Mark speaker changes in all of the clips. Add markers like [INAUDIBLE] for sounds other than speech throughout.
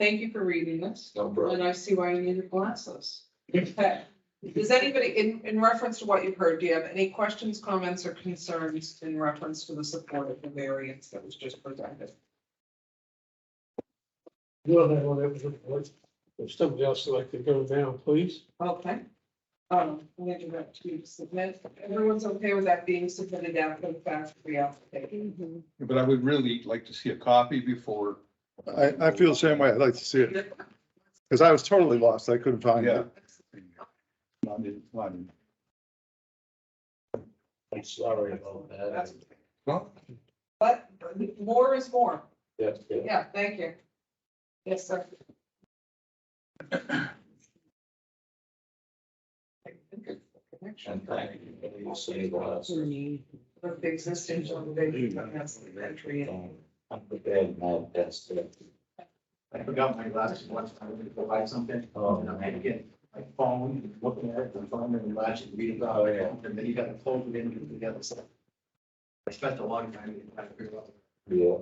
Speaker 1: Thank you for reading this,
Speaker 2: No problem.
Speaker 1: and I see why you needed glasses. Okay. Does anybody, in, in reference to what you've heard, do you have any questions, comments, or concerns in reference to the support of the variance that was just presented?
Speaker 3: Well, that one, that was important. If somebody else would like to go down, please.
Speaker 1: Okay. Um, I'm gonna do that to submit. Everyone's okay with that being submitted after the fact for the application?
Speaker 4: But I would really like to see a copy before.
Speaker 5: I, I feel the same way. I'd like to see it, because I was totally lost. I couldn't find
Speaker 4: Yeah.
Speaker 5: it.
Speaker 4: Not in- not in-
Speaker 2: I'm sorry about that.
Speaker 4: Well,
Speaker 1: But more is more.
Speaker 2: Yes, yeah.
Speaker 1: Yeah, thank you. Yes, sir.
Speaker 2: And thank you for your saving us.
Speaker 1: Of the existing elevation, that's the entry.
Speaker 2: Um, I'm prepared now, that's it.
Speaker 6: I forgot my glasses once, I went to go buy something, Oh,
Speaker 2: Oh,
Speaker 6: and I had to get my phone, and looking at it, and phone and watching, reading about it, and then you gotta fold it in and put it together, so. I spent a long time trying to figure out.
Speaker 2: Yeah.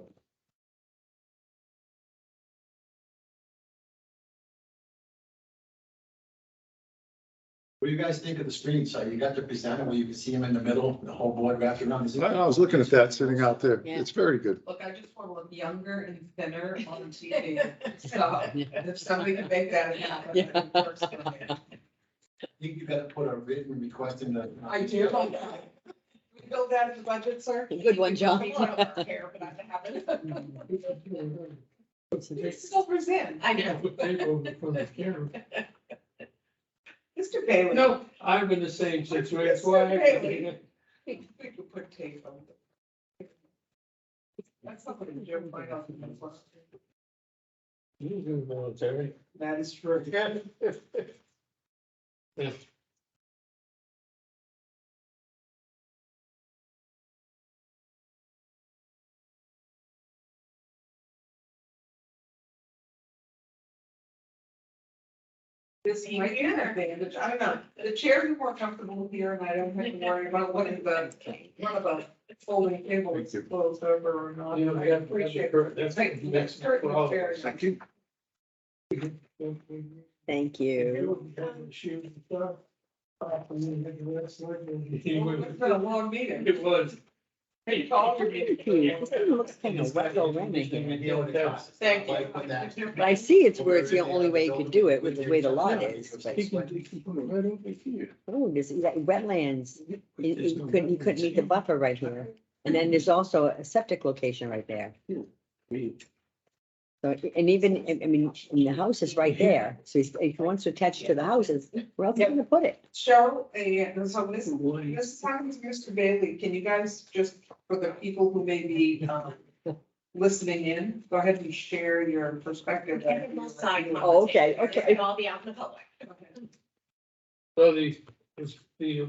Speaker 6: What do you guys think of the streets? Are you got the presenter where you can see them in the middle, the whole board wrapped around? Is it-
Speaker 5: I I was looking at that sitting out there.
Speaker 7: Yeah.
Speaker 5: It's very good.
Speaker 1: Look, I just want to look younger and thinner on [LAUGHS] TV, so if somebody can make that happen. I'd be first on it.
Speaker 6: I think you gotta put a written request in the.
Speaker 1: I do. We build that in the budget, sir?
Speaker 7: Good one, John.
Speaker 1: I don't care, but I [LAUGHS] haven't. It still present. I know.
Speaker 3: People from the camera.
Speaker 1: Mr. Bailey.
Speaker 3: No, I'm in the same situation. That's why I-
Speaker 1: We could put tape on it. That's something Jim might often do.
Speaker 3: You was in the military.
Speaker 1: That is
Speaker 3: [LAUGHS]
Speaker 1: true.
Speaker 3: Yes.
Speaker 1: This might be an advantage. I don't know. The chairs are more comfortable here and I don't have to worry about one of the, one of the folding tables is closed over or not.
Speaker 3: You know,
Speaker 1: I
Speaker 3: we have-
Speaker 1: appreciate it.
Speaker 3: That's
Speaker 1: Thank you.
Speaker 3: next
Speaker 1: Curtain
Speaker 3: for all of
Speaker 1: chair.
Speaker 3: us.
Speaker 4: Thank you.
Speaker 7: Thank you.
Speaker 1: Well, It's been a long meeting.
Speaker 3: It was.
Speaker 1: Hey, Paul, you're
Speaker 7: Looks kind of wet already here.
Speaker 1: Thank you.
Speaker 6: Like with that.
Speaker 7: But I see it's where it's the only way you could do it with the way the lot is. but-
Speaker 3: He can, he can put it right over here.
Speaker 7: Oh, there's yeah, wetlands. You you couldn't, you couldn't meet the buffer right here. And then there's also a septic location right there. So, and even, I I mean, and the house is right there. So he's- if he wants to attach to the houses, where else are you gonna put it?
Speaker 1: Cheryl, and so this, this happens, Mr. Bailey, can you guys just, for the people who may be, um, listening in, go ahead and share your perspective.
Speaker 7: Oh, okay, okay.
Speaker 8: It'll all be out in the public.
Speaker 3: So the, it's the,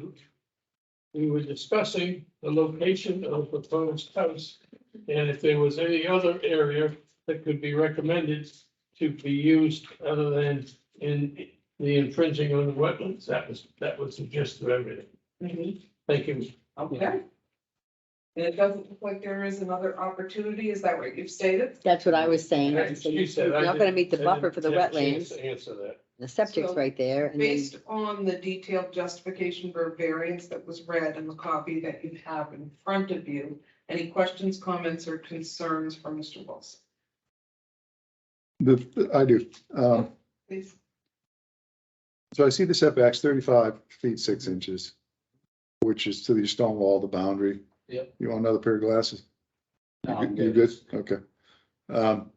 Speaker 3: we were discussing the location of the proposed house. And if there was any other area that could be recommended to be used other than in the infringing on the wetlands, that was, that was the gist of everything. Thank you.
Speaker 1: Mm-hmm. Okay. And it doesn't look like there is another opportunity, is that what you've stated?
Speaker 7: That's what I was saying. I was saying,
Speaker 3: You said
Speaker 7: You're
Speaker 3: I
Speaker 7: not gonna
Speaker 3: didn't-
Speaker 7: meet the
Speaker 3: I
Speaker 7: buffer
Speaker 3: didn't
Speaker 7: for the
Speaker 3: have a chance
Speaker 7: wetlands.
Speaker 3: to Answer that.
Speaker 7: The septic's
Speaker 1: So,
Speaker 7: right there and then.
Speaker 1: Based on the detailed justification for variance that was read in the copy that you have in front of you, any questions, comments, or concerns for Mr. Wilson?
Speaker 5: The, the- I do. Um,
Speaker 1: Please.
Speaker 5: So I see the setbacks thirty-five feet, six inches, which is to the stone wall, the boundary.
Speaker 2: Yep.
Speaker 5: You want another pair of glasses?
Speaker 2: No, I'm
Speaker 5: You good? Okay. Um,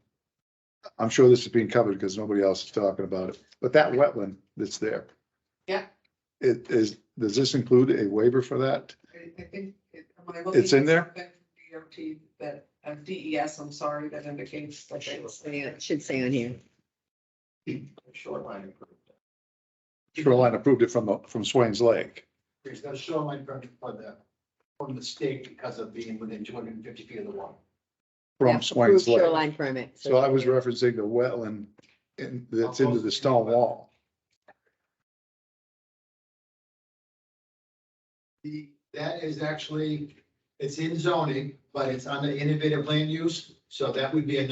Speaker 5: I'm sure this is being covered because nobody else is talking about it, but that wetland that's there.
Speaker 1: Yeah.
Speaker 5: It is, does this include a waiver for that?
Speaker 1: I, I think. it- am I looking
Speaker 5: It's in
Speaker 1: at
Speaker 5: there?
Speaker 1: something from DOT that, uh, DES, I'm sorry, that indicates that they
Speaker 7: Say it- it Should say on here.
Speaker 6: Shoreline improvement.
Speaker 5: Shoreline approved it from, the from Swains Lake.
Speaker 6: There's no shoreline permit for the, from the state because of being within two hundred and fifty feet of the water.
Speaker 7: Yeah,
Speaker 5: From
Speaker 7: approved
Speaker 5: Swains Lake.
Speaker 7: Shoreline permit.
Speaker 5: So I was referencing the wetland in, that's into the stone wall.
Speaker 6: The, that is actually, it's in zoning, but it's under innovative land use, so that would be a